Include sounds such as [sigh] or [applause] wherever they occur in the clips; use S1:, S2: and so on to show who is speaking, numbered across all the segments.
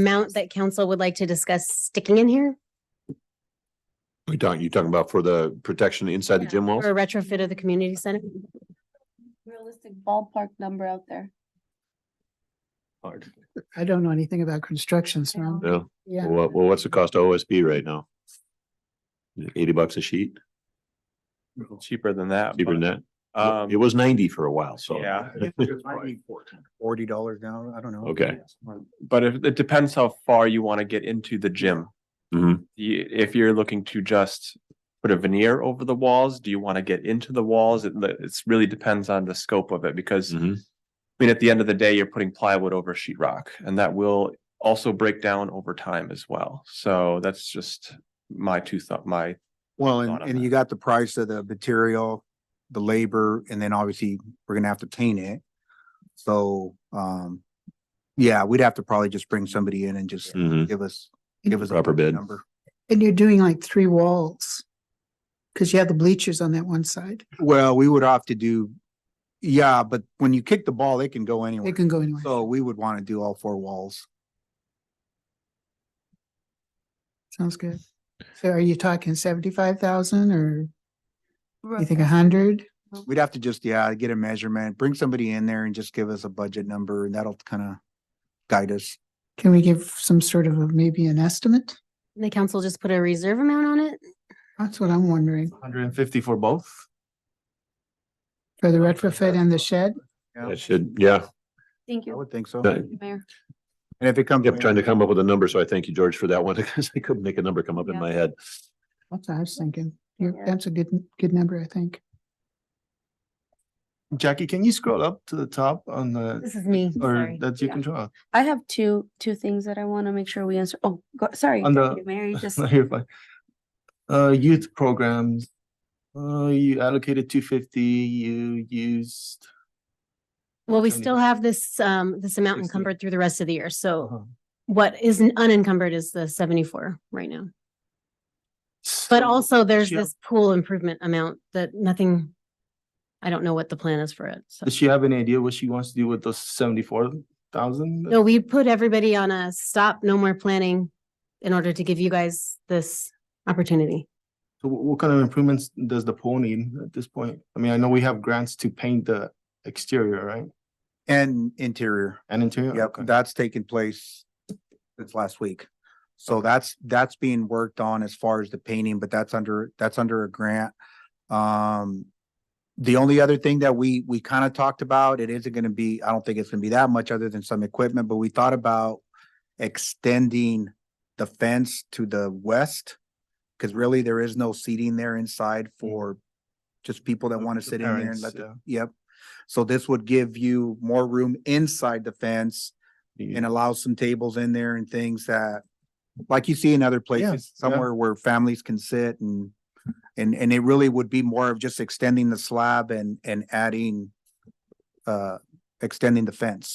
S1: amount that council would like to discuss sticking in here
S2: We talking, you talking about for the protection inside the
S1: Yeah.
S2: gym walls?
S1: for a retrofit of the community center?
S3: realistic ballpark number out there.
S4: I don't know anything about construction, so,
S2: No,
S4: yeah.
S2: well, what- well, what's the cost of OSB right now? Eighty bucks a sheet,
S5: cheaper than that.
S2: cheaper than
S5: but,
S2: that.
S5: Um,
S2: It was ninety for a while, so. [laughs] Mm-hmm,
S5: yeah,
S6: Forty dollars now, I don't know.
S2: Okay.
S5: but if, it depends how far you want to get into the gym.
S2: Mhm.
S5: You- if you're looking to just put a veneer over the walls, do you want to get into the walls? It, it's really depends on the scope of it because
S2: Mhm.
S5: I mean, at the end of the day, you're putting plywood over sheetrock, and that will also break down over time as well. So that's just my two thought, my,
S6: Well,
S5: Thought on
S6: and, and
S5: that.
S6: you got the price of the material, the labor, and then obviously we're gonna have to paint it. So, um, yeah, we'd have to probably just bring somebody in and just
S2: Mhm.
S6: give us, give us. a
S2: Proper bid.
S6: Number.
S4: And you're doing like three walls. Cause you have the bleachers on that one side.
S6: Well, we would have to do, yeah, but when you kick the ball, they can go anywhere.
S4: They can go anywhere.
S6: So we would want to do all four walls.
S4: Sounds good. So are you talking seventy-five thousand or you think a
S3: Rough.
S4: hundred?
S6: We'd have to just, yeah, get a measurement, bring somebody in there and just give us a budget number and that'll kind of guide us.
S4: Can we give some sort of a, maybe an estimate?
S1: And The council just put a reserve amount on it?
S4: That's what I'm wondering,
S5: hundred and fifty for both?
S4: for the retrofit and the shed?
S6: Yeah,
S2: That should, yeah,
S3: Thank
S6: I
S3: you,
S6: would think so.
S2: Uh,
S6: And
S3: Mayor.
S6: if it comes.
S2: I'm trying to come up with a number, so I thank you, George, for that one, [laughs] because I couldn't make a number come up in
S3: Yeah.
S2: my head.
S4: That's what I was thinking. You're-
S3: Yeah.
S4: That's a good, good number, I think.
S7: Jackie, can you scroll up to the top on the,
S1: This is me,
S7: or
S1: sorry.
S7: that's you
S3: Yeah.
S7: control?
S3: I have two, two things that I want to make sure we answer. Oh, go, sorry.
S7: On the-
S3: Mary
S7: [laughs]
S3: just,
S7: No, you're fine. Uh, youth programs. Uh, you allocated two fifty, you used.
S1: Well, we
S7: Seventy.
S1: still have this, um, this amount
S7: Sixty.
S1: encumbered through the rest of the year. So
S7: uh-huh.
S1: what is unencumbered is the seventy-four right now. But
S7: So
S1: also there's
S7: she have-
S1: this pool improvement amount that nothing, I don't know what the plan is for it. So.
S7: Does she have any idea what she wants to do with those seventy-four thousand?
S1: No, we put everybody on a stop, no more planning in order to give you guys this opportunity.
S7: So wh- what kind of improvements does the pool need at this point? I mean, I know we have grants to paint the exterior, right?
S6: And interior.
S7: And interior?
S6: Yep,
S7: Okay.
S6: that's taken place since last week. So that's, that's being worked on as far as the painting, but that's under, that's under a grant. Um, the only other thing that we, we kind of talked about, it isn't gonna be, I don't think it's gonna be that much other than some equipment, but we thought about extending the fence to the west. Cause really there is no seating there inside for just people that
S7: The-
S6: want to
S7: the
S6: sit in there and
S7: parents,
S6: let, the-
S7: yeah.
S6: yep. So this would give you more room inside the fence
S7: You-
S6: and allow some tables in there and things that, like you see in other places,
S7: yeah.
S6: somewhere where families can sit and, and, and it really would be more of just extending the slab and, and adding, uh, extending the fence.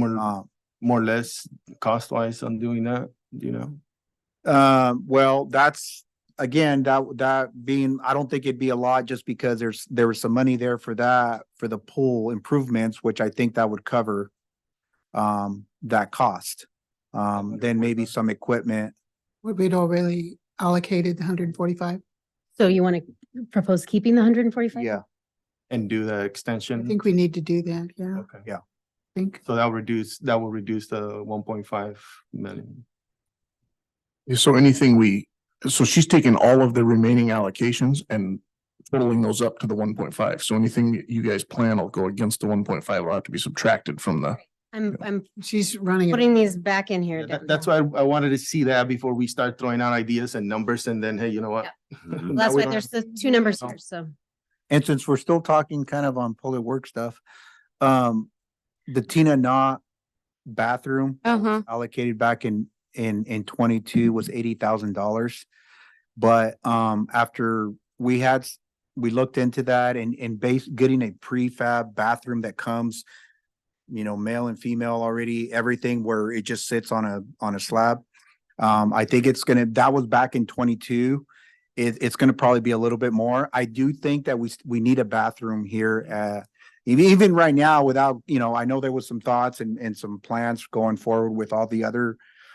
S7: More,
S6: Um,
S7: more or less cost wise on doing that, do you know?
S6: Um, well, that's, again, that, that being, I don't think it'd be a lot just because there's, there was some money there for that, for the pool improvements, which I think that would cover um, that cost. Um, then maybe some equipment.
S4: We'd already allocated the hundred and forty-five.
S1: So you want to propose keeping the hundred and forty-five?
S6: Yeah.
S7: And do the
S4: I
S7: extension?
S4: think we need to do that, yeah, I
S7: Okay.
S4: think.
S7: So that reduce, that will reduce the one point five million.
S8: Yeah, So anything we, so she's taking all of the remaining allocations and totaling those up to the one point five. So anything that you guys plan will go against the one point five will have to be subtracted from the.
S1: I'm, I'm
S4: She's running it.
S1: putting these back in here.
S7: That-
S1: then.
S7: That's why I I wanted to see that before we start throwing out ideas and numbers and then, hey, you know what?
S2: Mhm.
S5: Mm-hmm.
S1: Well,
S7: Now
S1: That's
S7: we
S1: why
S7: don't
S1: there's
S7: have-
S1: the two numbers here, so.
S6: And since we're still talking kind of on public work stuff, um, the Tina Knott bathroom
S3: uh-huh.
S6: allocated back in, in, in twenty-two was eighty thousand dollars. But, um, after we had, s- we looked into that and, and base, getting a prefab bathroom that comes, you know, male and female already, everything where it just sits on a, on a slab. Um, I think it's gonna, that was back in twenty-two. It, it's gonna probably be a little bit more. I do think that we, s- we need a bathroom here at, ev- even right now without, you know, I know there was some thoughts and, and some plans going forward with all the other